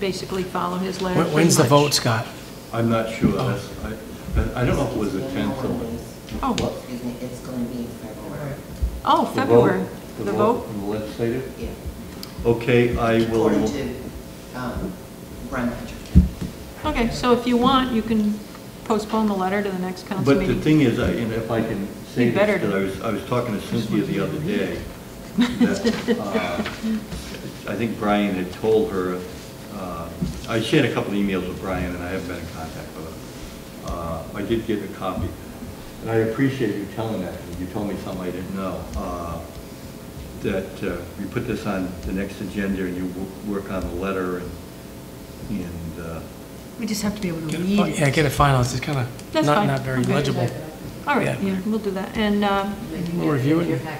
basically follow his letter When- pretty When's the much. vote, Scott? I'm not sure, That's- I, I don't know if it was the 10th or the... Oh. What? Excuse me, it's going to be in February. Oh, The vote- February, the vote, in the legislative? Yeah. Okay, I will, According to, um, Brian Patrick. okay, so if you want, you can postpone the letter to the next council but the meeting. thing is, I- and if I can say You better this, because I was, I was talking to Cynthia the other day, that, uh, I think Brian had told her, uh, I shared a couple of emails with Brian, and I haven't been in contact with her. Uh, I did get a copy, and I appreciate you telling that, because you told me something I didn't know. Uh, That uh, we put this on the next agenda, and you wo- work on the letter, and, and uh, We just have to be able to Get it read fi- it. Yeah, get it finalized, it's kind of That's not, fine. not very Okay. legible. All right, Yeah. yeah, we'll do that, and, uh, We'll review it. yeah,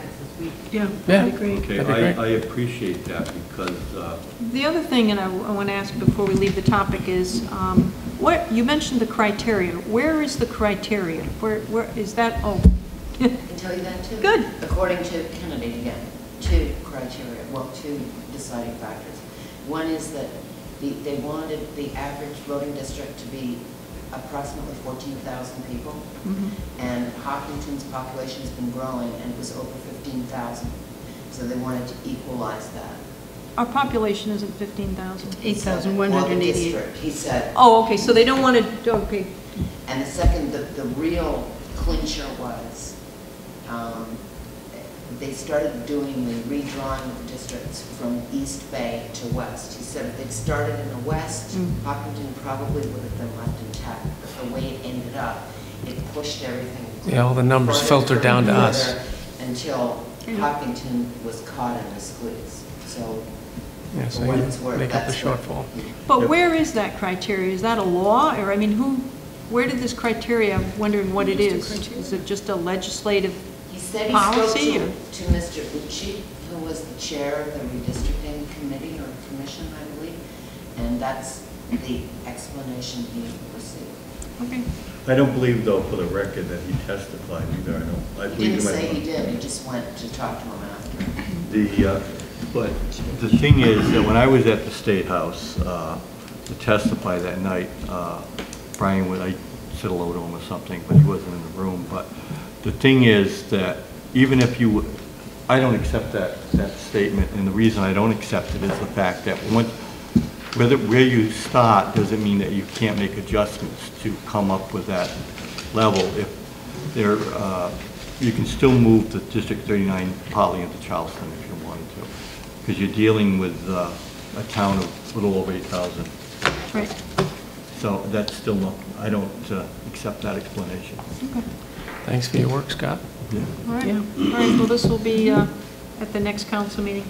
Yeah. that'd be great. Okay, That'd be I, great. I appreciate that because, uh, The other thing, and I want to ask before we leave the topic, is um, what, you mentioned the criteria. Where is the criteria? Where, where, is that, oh, I can tell you that too. Good. According to Kennedy, again, two criteria, well, two deciding factors. One is that the, they wanted the average voting district to be approximately 14,000 people. Mhm. And Hopkinton's population's been growing and it was over 15,000. So they wanted to equalize that. our population isn't 15,000. He said that- well, the 8,188. district, He said, Oh, okay, so they don't want to, okay, And the second, the, the real clincher was, um, they started doing the redrawing of the districts from East Bay to West. He said if they'd started in the West, Mm. Hopkinton probably would have been left intact, but the way it ended up, it pushed everything. Yeah, all the numbers further, filtered down to further, us. Until Hopkinton was caught in the squeeze, so. Yeah, for so what you it's worth, make up the that's what- shortfall. but where is that criteria? Is that a law, or, I mean, who, where did this criteria, I'm wondering what it is? Is it just a legislative, He said he spoke Policy to, or- to Mr. Ucci, who was the chair of the redistricting committee or commission, I believe, and that's the explanation he received. okay, I don't believe though, for the record, that he testified either, I don't, I He believe didn't he say he might. did, he just went to talk to him after. The, uh, but the thing is, that when I was at the State House uh, to testify that night, uh, Brian, would I said hello to him or something, but he wasn't in the room, but the thing is that even if you, I don't accept that, that statement, and the reason I don't accept it is the fact that once, whether, where you start doesn't mean that you can't make adjustments to come up with that level. If there, uh, you can still move the District 39 partly into Charleston if you wanted to, because you're dealing with uh, a town of a little over 8,000. right, So that's still not, I don't uh, accept that explanation. okay. Thanks for your work, Scott. All right, all right, well, this will be uh, at the next council meeting.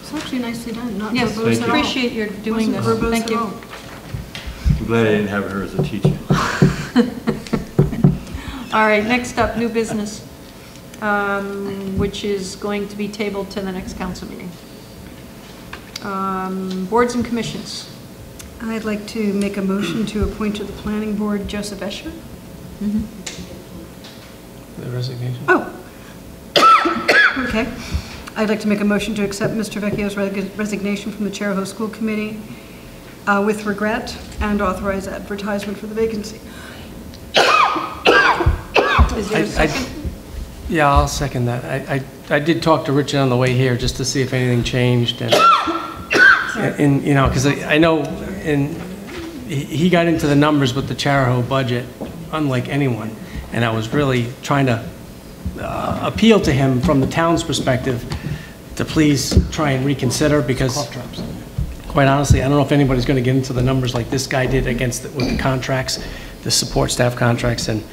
It's actually nicely done, not Yes, verbose at all. appreciate your doing Wasn't this, verbose thank at you. all. I'm glad I didn't have her as a teacher. All right, next up, new business, um, which is going to be tabled to the next council meeting. Um, Boards and commissions. I'd like to make a motion to appoint to the planning board Joseph Escher. The resignation. Oh, okay. I'd like to make a motion to accept Mr. Vecchio's reg- resignation from the Chair of the School Committee uh, with regret and authorize advertisement for the vacancy. Is there a I- I- second? Yeah, I'll second that. I, I, I did talk to Richard on the way here, just to see if anything changed, and, and, you know, because I I know, and he- he got into the numbers with the Charahoe budget, unlike anyone, and I was really trying to uh, appeal to him from the town's perspective to please try and reconsider, because quite honestly, I don't know if anybody's going to get into the numbers like this guy did against, the- with the contracts, the support staff contracts, and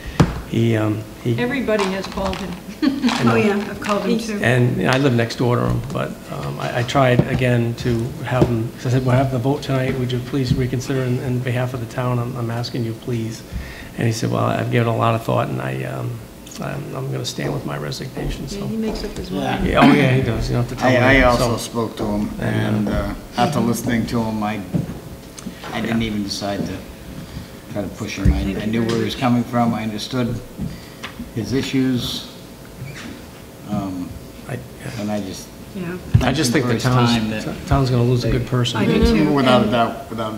he, um, he Everybody has called him. Oh, yeah, I've called him too. and you know, I live next door to him, but um, I I tried again to have him, 'cause I said, we'll have the vote tonight, would you please reconsider in- in behalf of the town, I'm I'm asking you, please. And he said, well, I've given a lot of thought, and I, um, I'm going to stand with my resignation, Yeah, so. He makes up his mind. Yeah, Oh, yeah, he does, you don't have to tell me. I, I So- also spoke to him, and uh, after listening to him, I, I didn't even decide to try to push him. I I knew where he was coming from, I understood his issues, um, I- yeah. and I just Yeah. I just think the First time town's, that- town's going to lose a good person. I do too. Without a doubt, without a doubt.